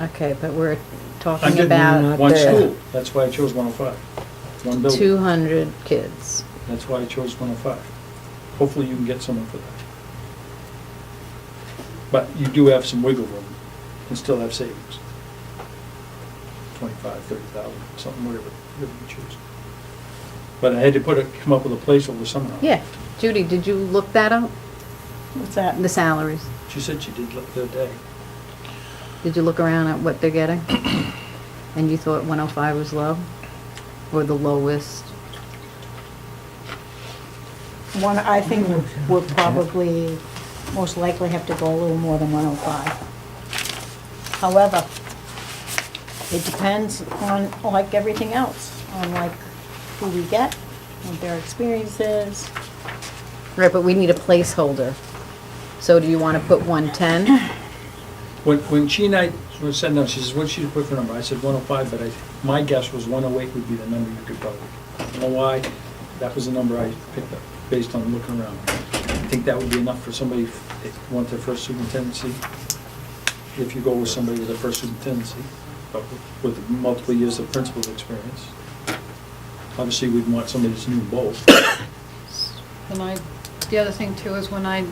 Okay, but we're I'm talking getting about one the school, that's why I chose 105. One two building, hundred kids. that's why I chose 105. Hopefully you can get someone for that. But you do have some wiggle room and still have savings. 25, 30,000, something, whatever, whatever you choose. But I had to put a, come up with a placeholder somehow. Yeah, Judy, did you look that up? What's that? The salaries? She said she did look the other day. Did you look around at what they're getting? And you thought one oh five was low? Or the lowest? One, I think we'll- we'll probably, most likely have to go a little more than 105. However, it depends on, like everything else, on like who we get, what their experience is. Right, but we need a placeholder. So do you wanna put one ten? When, when she and I were sitting down, she says, what should you put for number? I said 105, but I, my guess was 108 would be the number you could probably. You know why? That was the number I picked up, based on looking around. I think that would be enough for somebody that wants their first superintendency, if you go with somebody with their first superintendency, but with multiple years of principal experience. Obviously, we'd want somebody that's new in both. And I, the other thing too is when I,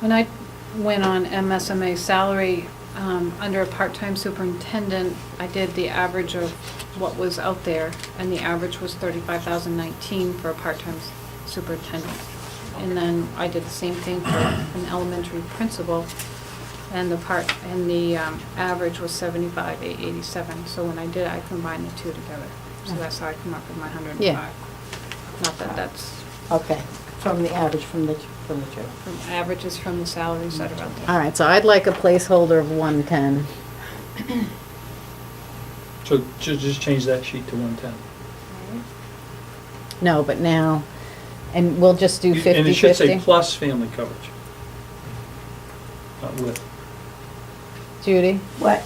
when I went on MSMA salary, um, under a part-time superintendent, I did the average of what was out there, and the average was thirty-five thousand nineteen for a part-time s- superintendent. And then I did the same thing for an elementary principal, and the part, and the, um, average was seventy-five, eight eighty-seven. So when I did, it, I combined the two together, so that's how I come up with my hundred and Yeah. five. Not that that's Okay, from the average, from the, from the two. from averages from the salaries that are out there. All right, so I'd like a placeholder of one ten. So ju- just change that sheet to 110. No, but now, and we'll just do fifty fifty? And it should say plus family coverage. Not with. Judy? What?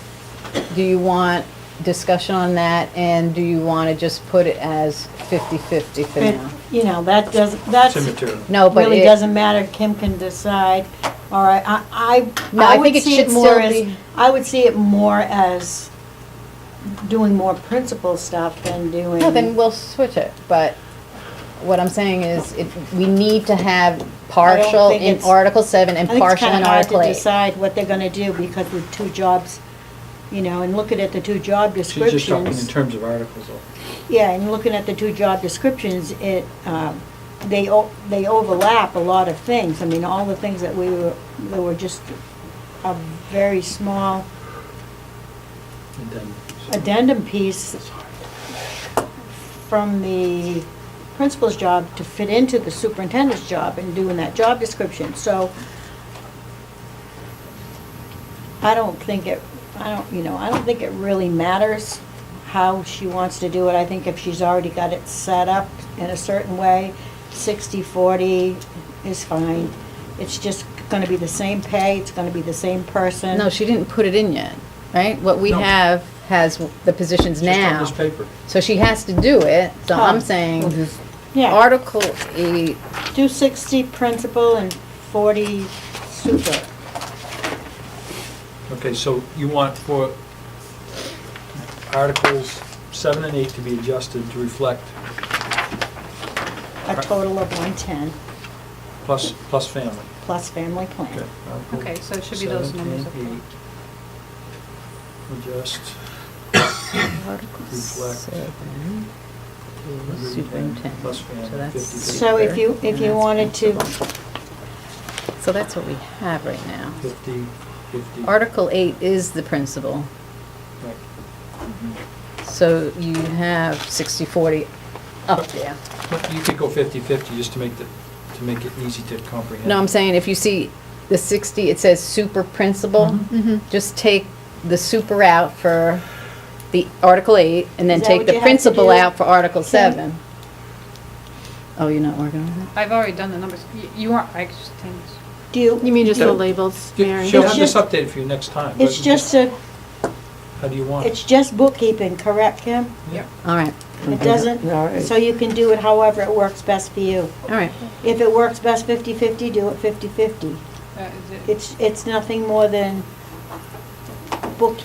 Do you want discussion on that, and do you want to just put it as 50/50 for now? You know, that doesn't, that's, Cemetery. No, but really it- doesn't matter, Kim can decide, all right, I, No, I, I I would think it see should it still more as, be- I would see it more as doing more principal stuff than doing. No, then we'll switch it, but what I'm saying is, it- we need to have partial think in it's- Article 7 and I think it's partial kind in of hard Article to 8. decide what they're gonna do because the two jobs, you know, and looking at the two job She's just talking in descriptions. terms of articles, though. Yeah, and looking at the two job descriptions, it, um, they, o- they overlap a lot of things. I mean, all the things that we were, they were just a very small And then- addendum piece from the principal's job to fit into the superintendent's job and doing that job description, so I don't think it, I don't, you know, I don't think it really matters how she wants to do it. I think if she's already got it set up in a certain way, sixty, forty is fine. It's just gonna be the same pay, it's gonna be the same person. No, she didn't put it in yet, right? What we No. have has the positions It's just on now. this paper. So she has to do it, so Oh. I'm saying, Yeah. Article 8, Do sixty principal and forty super. Okay, so you want for articles seven and eight to be adjusted to reflect A total of one-ten plus, plus family. plus family Okay. plan. article Okay, so it should be those seven numbers and up there. eight. Adjust. Article Reflect. 7, Hundred and ten superintendent. Plus family, So that's- 50. So if you, if you wanted to, So that's what we have right now. 50, 50. Article 8 is the principal, Right. so you have 60/40 up there. But You could go 50-50 just to make the, to make it easy to comprehend. No, I'm saying if you see the 60, it says super principal, Mm-hmm. just take the super out for the Article 8, and then Is that take what the you have to principal do, out for Article Kim? 7. Oh, you're not working on that? I've already done the numbers. Y- You aren't, I just think, do you? You mean just Yeah. the labels, Yeah, Mary? She'll It's have this just- updated for you next time. but It's just a, How do you want it's it? just bookkeeping, correct, Kim? Yeah. All right, It doesn't, so you can do it however it works best for you. all right. If it works best fifty-fifty, do it fifty-fifty. uh, is it- It's, it's nothing more than bookkeeping.